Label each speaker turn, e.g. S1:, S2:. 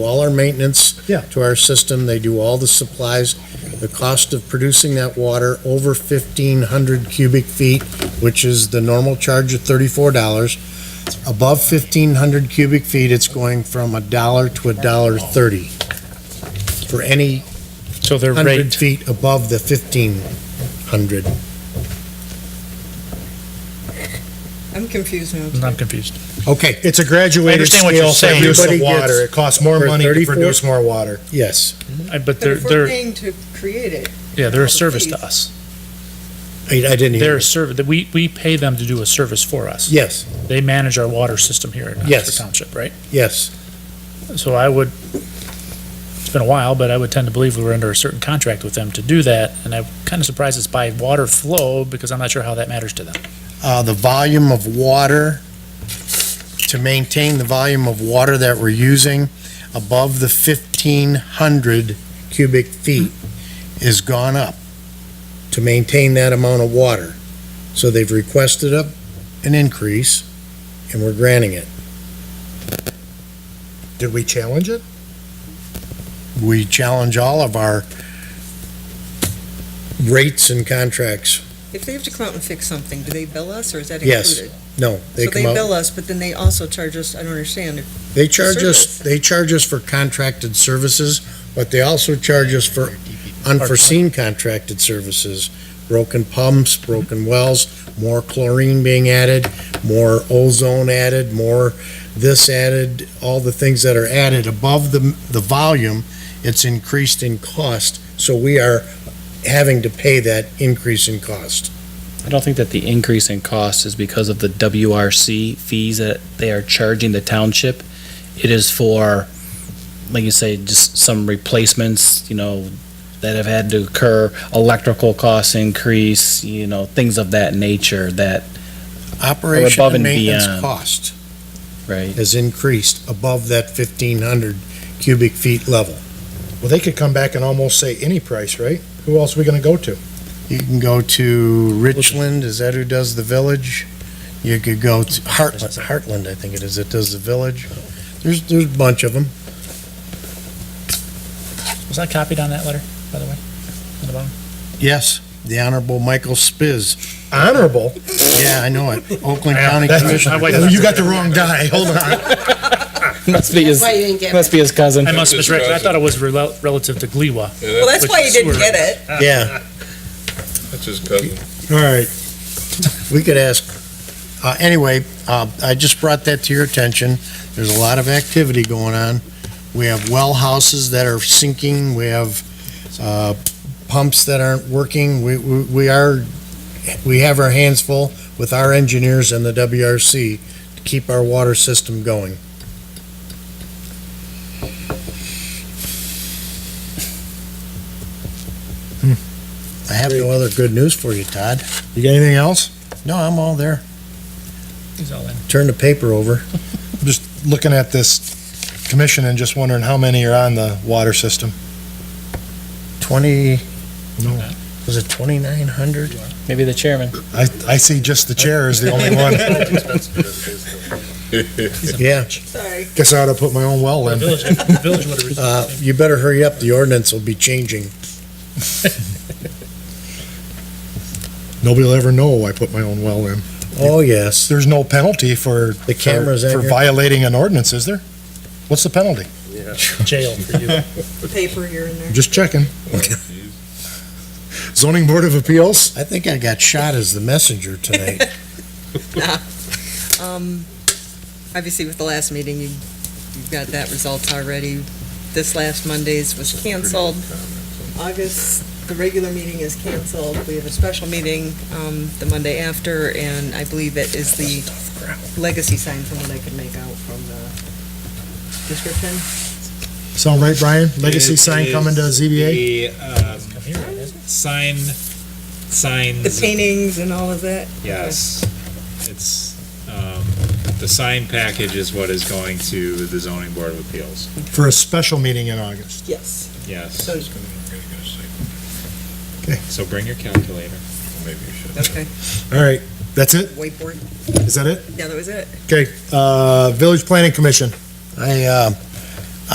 S1: all our maintenance
S2: Yeah.
S1: to our system, they do all the supplies. The cost of producing that water over fifteen hundred cubic feet, which is the normal charge of thirty-four dollars. Above fifteen hundred cubic feet, it's going from a dollar to a dollar thirty for any
S3: So their
S1: hundred
S3: rate,
S1: feet above the fifteen hundred.
S4: I'm confused now.
S3: I'm confused.
S1: Okay,
S2: It's a graduated
S3: understand what
S2: scale
S3: you're
S2: for
S3: saying.
S2: use of
S1: Everybody
S2: water.
S1: gets-
S2: It costs more
S1: for
S2: money to
S1: 34?
S2: produce more water.
S1: yes,
S3: I- But
S4: But
S3: they're,
S4: if we're
S3: they're,
S4: paying to create it,
S3: yeah, they're a service to us.
S1: I I didn't
S3: They're
S1: hear.
S3: a service, that we, we pay them to do a service for us.
S1: Yes,
S3: They manage our water system here in Oxford
S1: Yes.
S3: Township, right?
S1: yes.
S3: So I would, it's been a while, but I would tend to believe we were under a certain contract with them to do that. And I'm kind of surprised it's by water flow because I'm not sure how that matters to them.
S1: uh, the volume of water, to maintain the volume of water that we're using above the 1,500 cubic feet is gone up to maintain that amount of water. So they've requested up an increase, and we're granting it.
S2: Did we challenge it?
S1: We challenge all of our rates and contracts.
S4: if they have to come out and fix something, do they bill us or is that
S1: Yes.
S4: included?
S1: No, they
S4: So they
S1: come out.
S4: bill us, but then they also charge us, I don't understand. If-
S1: They charge us,
S4: Service.
S1: they charge us for contracted services, but they also charge us for unforeseen contracted services. Broken pumps, broken wells, more chlorine being added, more ozone added, more this added, all the things that are added above the, the volume, it's increased in cost, so we are having to pay that increase in cost.
S5: I don't think that the increase in cost is because of the WRC fees that they are charging the township. It is for, like you say, just some replacements, you know, that have had to occur, electrical costs increase, you know, things of that nature that,
S1: Operation
S5: above
S1: and
S5: and
S1: maintenance
S5: beyond.
S1: cost
S5: right?
S1: has increased above that fifteen hundred cubic feet level.
S2: Well, they could come back and almost say any price, right? Who else are we gonna go to?
S1: You can go to Richland, is that who does the village? You could go to Heartland, Heartland, I think it is, that does the village. There's, there's a bunch of them.
S3: Was that copied on that letter, by the way? On the bottom?
S1: Yes, the Honorable Michael Spiz.
S2: Honorable.
S1: Yeah, I know it. Oakland County
S3: That's-
S1: Commissioner.
S3: I wait-
S2: Oh, You got the wrong guy. Hold on.
S5: Must be his,
S6: That's why you didn't get
S5: must be his cousin.
S3: I must
S7: That's
S3: misread, I
S7: disgusting.
S3: thought it was rel- relative to Gliwa.
S7: Yeah,
S4: Well,
S7: that-
S4: that's why you didn't get it.
S1: Yeah,
S7: that's his cousin.
S2: All right.
S1: we could ask. Uh, anyway, uh, I just brought that to your attention. There's a lot of activity going on. We have well houses that are sinking. We have, uh, pumps that aren't working. We, we, we are, we have our hands full with our engineers and the WRC to keep our water system going. Hmm. I have no other good news for you, Todd.
S2: You got anything else?
S1: No, I'm all there.
S3: He's all in.
S1: Turn the paper over.
S2: Looking at this commission and just wondering how many are on the water system?
S1: Twenty,
S2: No.
S1: was it twenty-nine hundred?
S5: Maybe the chairman.
S2: I, I see just the chair is the only one.
S1: Yeah,
S4: Sorry.
S2: Guess I ought to put my own well
S3: The
S2: in.
S3: village, the village would have.
S1: uh, you better hurry up. The ordinance will be changing.
S2: Nobody will ever know I put my own well in.
S1: Oh, yes.
S2: There's no penalty for.
S1: The cameras out
S2: For
S1: here.
S2: violating an ordinance, is there? What's the penalty?
S3: Jail for you.
S4: Paper here and there.
S2: Just checking. Zoning Board of Appeals?
S1: I think I got shot as the messenger tonight.
S4: Um, obviously with the last meeting, you, you got that results already. This last Monday's was canceled. August, the regular meeting is canceled. We have a special meeting, um, the Monday after, and I believe it is the legacy sign from what I could make out from the description.
S2: Sound right, Brian? Legacy
S8: It
S2: sign coming to
S8: is
S2: ZBA?
S8: the, um, Sign, signs.
S4: The paintings and all of that.
S8: Yes. It's, um, the sign package is what is going to the zoning board of appeals.
S2: For a special meeting in August.
S4: Yes.
S8: Yes.
S4: So-
S8: So bring your calculator.
S4: Okay.
S2: All right, that's it?
S4: Whiteboard.
S2: Is that it?
S4: Yeah, that was it.
S2: Okay, uh, Village Planning Commission.
S1: I, uh,